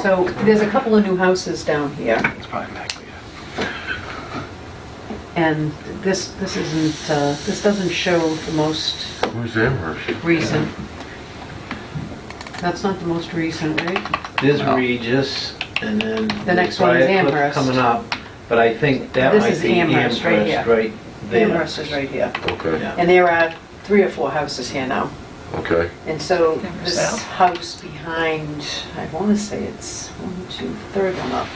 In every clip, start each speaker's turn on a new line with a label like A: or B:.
A: So there's a couple of new houses down here,
B: It's probably back there.
A: and this, this isn't, uh, this doesn't show the most
C: Who's Amherst?
A: recent. That's not the most recent, right?
B: There's Regis, and then.
A: The next one is
B: Briarcliff
A: Amherst.
B: Coming up, but I think that
A: This
B: might
A: is
B: be
A: Amherst
B: Amherst
A: right here.
B: right there.
A: Amherst is right here.
C: Okay,
B: Yeah.
A: And there are three or four houses here now.
C: okay.
A: And so
D: Amherst
A: this
D: South.
A: house behind, I want to say it's one, two, third one up,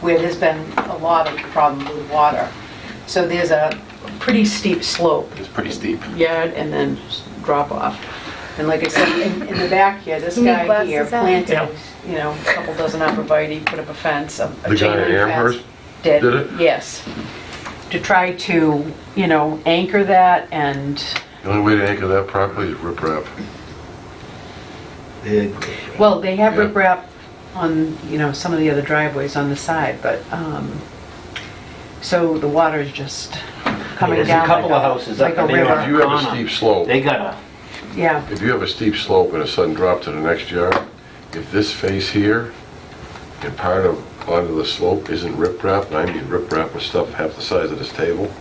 A: where there's been a lot of problem with water. So there's a pretty steep slope
B: It's pretty steep.
A: yard and then s- drop off. And like I said, in, in the back here, this
D: You need
A: guy here
D: glasses on.
A: planted, you know, a couple dozen arborvitae, put up a fence, a a
C: The
A: chain
C: guy
A: link
C: at
A: fence.
C: Amherst did it?
A: Yes. To try to, you know, anchor that and,
C: The only way to anchor that properly is riprap.
A: well, they have
C: Yeah.
A: riprap on, you know, some of the other driveways on the side, but, um, so the water's just coming
B: There's a
A: down like
B: couple of
A: a,
B: houses
A: like a
B: up in there.
C: If
A: river.
C: you have a
B: Connor.
C: steep slope,
B: They got
A: Yeah,
C: if you have a steep slope and a sudden drop to the next yard, if this face here and part of, onto the slope isn't riprap, and I mean riprap with stuff half the size of this table,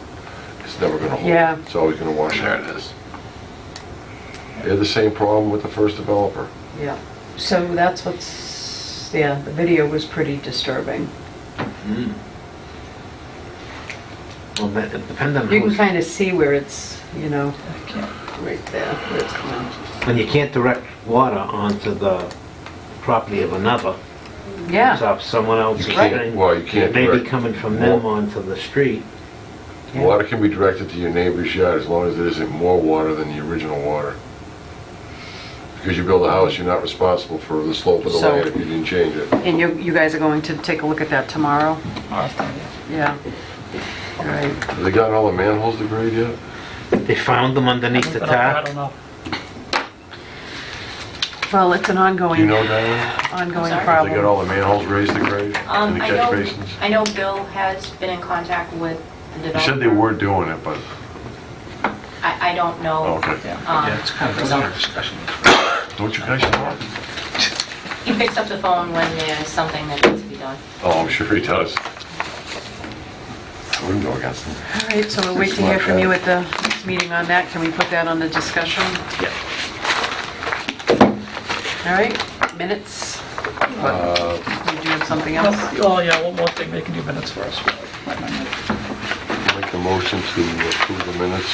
C: it's never gonna hold.
A: Yeah.
C: It's always gonna wash out.
B: it is.
C: They had the same problem with the first developer.
A: yeah. So that's what's, yeah, the video was pretty disturbing.
B: Well, that- it depends on
A: You can
B: who's,
A: kind of see where it's, you know, right there, where it's coming.
B: when you can't direct water onto the property of another. It's
A: Yeah,
B: off someone else's
C: You can't-
B: thing.
C: well, you can't
B: It may be
C: direct-
B: coming from them
C: Well-
B: onto the street.
A: Yeah.
C: Water can be directed to your neighbor's yard as long as there isn't more water than the original water. Because you build a house, you're not responsible for the slope of the
A: So-
C: land if you didn't change it.
A: and you, you guys are going to take a look at that tomorrow? Yeah. All right,
C: Have they gotten all the manholes degraded yet?
B: They found them underneath the
D: I
B: tap.
D: don't know.
A: well, it's an
C: Do you
A: ongoing,
C: know, Diane?
A: ongoing
E: Sorry?
C: Have they got
A: problem.
C: all the manholes raised to grade in
E: Um,
C: the
E: I
C: catch
E: know,
C: basins?
E: I know Bill has been in contact with the developer.
C: You said they were doing it, but,
E: I, I don't
C: oh,
E: know.
C: okay.
E: um, results.
F: discussion.
C: Don't you guys know?
E: He picks up the phone when there's something that needs to be done.
C: Oh, I'm sure he does. I wouldn't go against him.
A: All right, so we'll wait to hear from you at the next meeting on that. Can we put that on the discussion?
B: Yeah.
A: All right, minutes?
C: Uh,
A: You doing something else?
D: Oh, yeah, one more thing, they can do minutes for us.
C: Make the motion to approve the minutes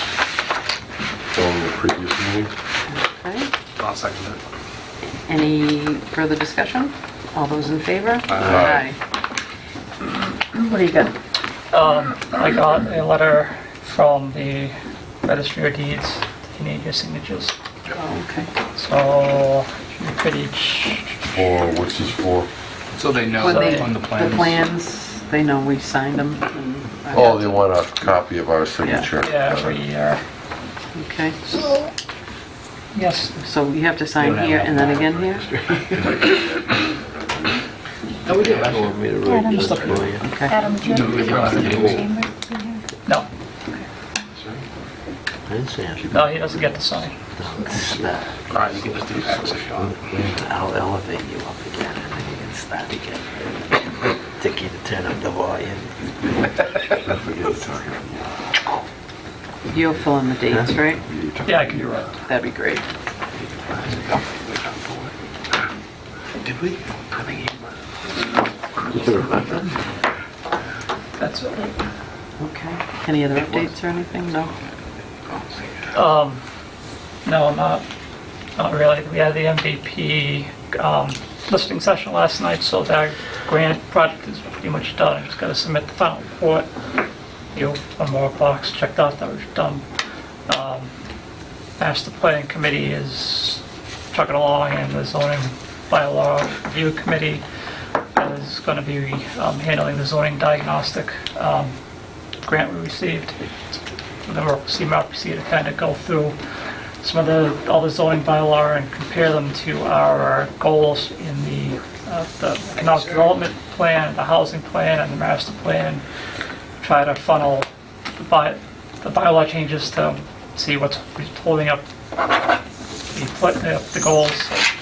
C: from the previous meeting.
A: Okay.
F: I'll second it.
A: Any further discussion? All those in favor?
C: Aye.
A: Aye. What do you got?
D: Um, I got a letter from the registry of deeds, they need your signatures.
A: Oh, Okay.
D: So, you could each,
C: For, what's this for?
F: So they know
A: When they-
F: on the plans.
A: The plans, they know we signed them. and-
C: Oh, they want a copy of our signature.
D: yeah, every year.
A: Okay,
D: Yes,
A: so you have to sign here and then again here?
B: No, we did. I
D: just looking.
A: Okay.
F: No, they brought it in.
D: no,
B: didn't see it.
D: no, he doesn't get to sign.
B: It's, uh,
F: All right, you can just do that if you want.
B: I'll elevate you up again, and then you can start again. Take you to turn up the volume.
A: You'll fill in the dates, right?
D: Yeah, I can do that.
A: That'd be great.
F: Did we?
D: That's it.
A: Okay. Any other updates or anything? No?
D: Um, no, not, not really. We had the MVP um, listing session last night, so that grant project is pretty much done. Just gotta submit the final report. You, know, one more box checked off that was done. Um, Master planning committee is chugging along, and the zoning bylaw review committee is gonna be um, handling the zoning diagnostic um, grant we received the CMRPC to kind of go through some of the, all the zoning bylaw and compare them to our goals in the, uh, the economic development plan, the housing plan, and the master plan. Try to funnel the by, the bylaw changes to see what's holding up the, pl- uh, the goals.